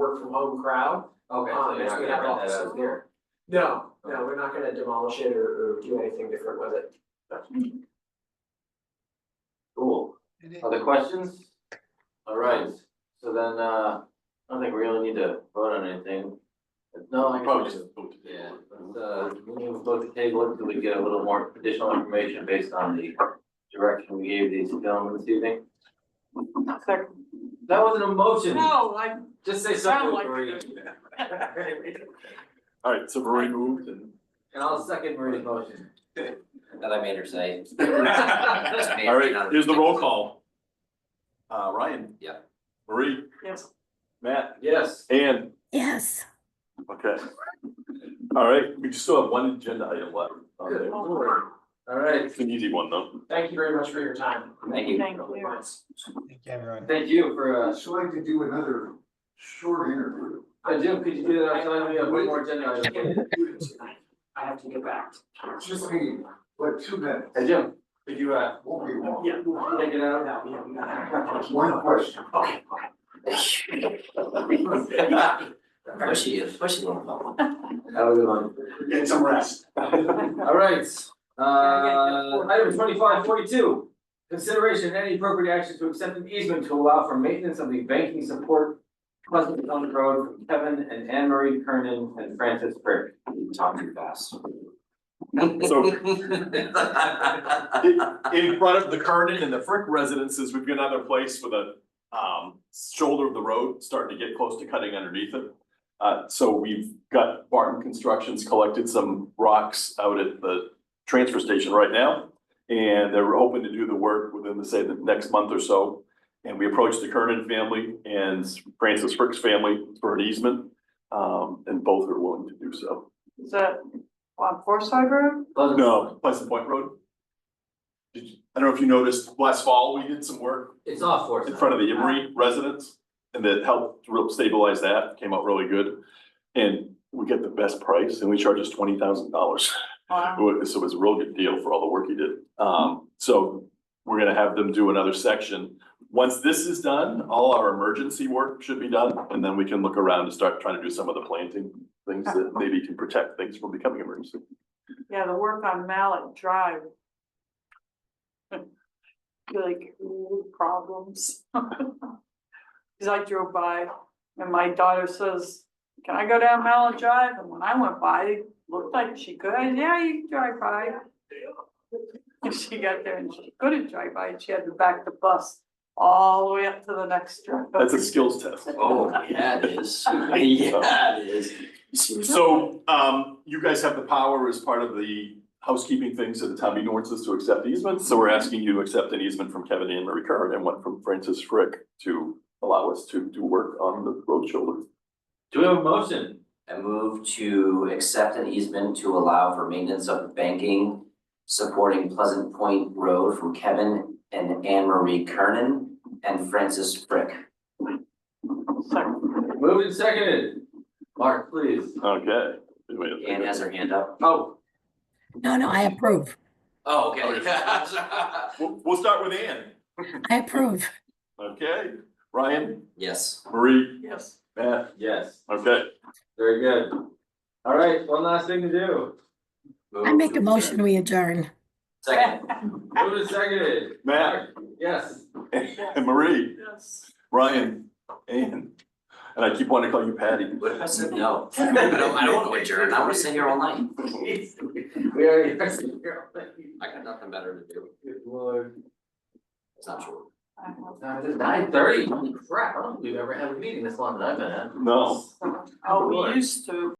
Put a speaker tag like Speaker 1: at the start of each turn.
Speaker 1: work from home crowd.
Speaker 2: Okay, so
Speaker 1: Um,
Speaker 2: you're
Speaker 1: as
Speaker 2: not
Speaker 1: we
Speaker 2: gonna
Speaker 1: have
Speaker 2: rent that
Speaker 1: offices
Speaker 2: out?
Speaker 1: there. No, no, we're not gonna demolish it or, or do anything different with it.
Speaker 2: Cool. Other questions? All right, so then, uh, I don't think we really need to vote on anything. No, I guess.
Speaker 3: Probably just vote to
Speaker 2: Yeah,
Speaker 3: table
Speaker 2: let's, uh, we need to vote to table it until we get a little more additional information based on the direction we gave these gentlemen this evening. That wasn't a motion.
Speaker 4: No, I
Speaker 2: Just say
Speaker 4: sound
Speaker 2: something,
Speaker 4: like.
Speaker 2: Marie,
Speaker 3: All right, so Rory moved and.
Speaker 2: and I'll second Marie's motion.
Speaker 5: That I made her say. Just made
Speaker 3: All right,
Speaker 5: it out of
Speaker 3: here's the roll call. Uh, Ryan.
Speaker 5: Yeah.
Speaker 3: Marie,
Speaker 4: Yes,
Speaker 3: Matt,
Speaker 2: Yes.
Speaker 3: Ann,
Speaker 6: Yes.
Speaker 3: okay. All right, we just still have one agenda item left. on
Speaker 1: Good
Speaker 3: there.
Speaker 1: lord.
Speaker 2: All right,
Speaker 3: It's an easy one though.
Speaker 1: Thank you very much for your time.
Speaker 5: Thank you.
Speaker 4: thank you.
Speaker 2: thank you for, uh,
Speaker 7: So I could do another short interview.
Speaker 2: uh, Jim, could you do that, I we have one more agenda item.
Speaker 1: I have to get back.
Speaker 7: Just me, but two minutes,
Speaker 2: Hey, Jim, could you, uh,
Speaker 7: won't be long.
Speaker 1: Yeah.
Speaker 2: take it out?
Speaker 1: No, yeah, we gotta-
Speaker 7: One question.
Speaker 1: Okay, okay.
Speaker 5: Where's she, where's she going?
Speaker 2: Have a good one.
Speaker 7: Get some rest.
Speaker 2: All right, uh, item twenty-five forty-two. Consideration and any appropriate action to accept an easement to allow for maintenance of the banking support Pleasant Hill Road from Kevin and Anne Marie Kernan and Francis Burke.
Speaker 5: Talk too fast.
Speaker 3: So- In- In front of the Kernan and the Frick residences, we've got another place with a um shoulder of the road starting to get close to cutting underneath it. Uh, so we've got Barton Constructions collected some rocks out at the transfer station right now. And they're hoping to do the work within the, say, the next month or so. And we approached the Kernan family and Francis Frick's family for an easement. Um, and both are willing to do so.
Speaker 4: Is that on Forsyth Road?
Speaker 2: Pleasant-
Speaker 3: No, Pleasant Point Road. Did you, I don't know if you noticed, last fall, we did some work
Speaker 2: It's off for us.
Speaker 3: in front of the Emery residents, and that helped real stabilize that, came out really good. And we get the best price, and we charge us twenty thousand dollars,
Speaker 4: Wow.
Speaker 3: so it was a real good deal for all the work he did. Um, so we're gonna have them do another section. Once this is done, all our emergency work should be done, and then we can look around and start trying to do some of the planting things that maybe can protect things from becoming emergency.
Speaker 4: Yeah, the work on Mallet Drive. Like, ooh, problems. Cause I drove by and my daughter says, can I go down Mallet Drive? And when I went by, it looked like she could. I said, Yeah, you can drive by. And she got there and she couldn't drive by and she had to back the bus all the way up to the next drive.
Speaker 3: That's a skills test.
Speaker 5: Oh, yeah, it is. Yeah, it is.
Speaker 3: So, um, you guys have the power as part of the housekeeping things of the town meeting ordinances to accept easements, so we're asking you to accept an easement from Kevin and Marie Curran and one from Francis Frick to allow us to do work on the road shoulder.
Speaker 2: Do we have a motion?
Speaker 5: I move to accept an easement to allow for maintenance of banking supporting Pleasant Point Road from Kevin and Anne Marie Kernan and Francis Frick.
Speaker 2: Moved and seconded. Mark, please.
Speaker 3: Okay. Wait a minute.
Speaker 5: Anne has her hand up.
Speaker 2: Oh,
Speaker 6: No, no, I approve.
Speaker 5: Oh, okay.
Speaker 3: We'll, we'll start with Ann.
Speaker 6: I approve.
Speaker 3: Okay, Ryan,
Speaker 5: Yes.
Speaker 3: Marie,
Speaker 4: Yes.
Speaker 3: Matt,
Speaker 2: yes,
Speaker 3: okay.
Speaker 2: very good. All right, one last thing to do.
Speaker 6: I make a motion, we adjourn.
Speaker 5: Second.
Speaker 2: Moved and seconded.
Speaker 3: Matt.
Speaker 2: Yes.
Speaker 3: And Marie,
Speaker 4: Yes.
Speaker 3: Ryan, Ann, and I keep wanting to call you Patty.
Speaker 5: What if I said no? I don't, I don't want to adjourn. I want to sit here all night.
Speaker 2: We already. Good
Speaker 5: I got nothing better to do.
Speaker 2: lord.
Speaker 5: It's not true.
Speaker 2: Now, it's nine thirty, holy crap, I don't think we've ever had a meeting this long that I've been at.
Speaker 3: No.
Speaker 4: Oh, we used to.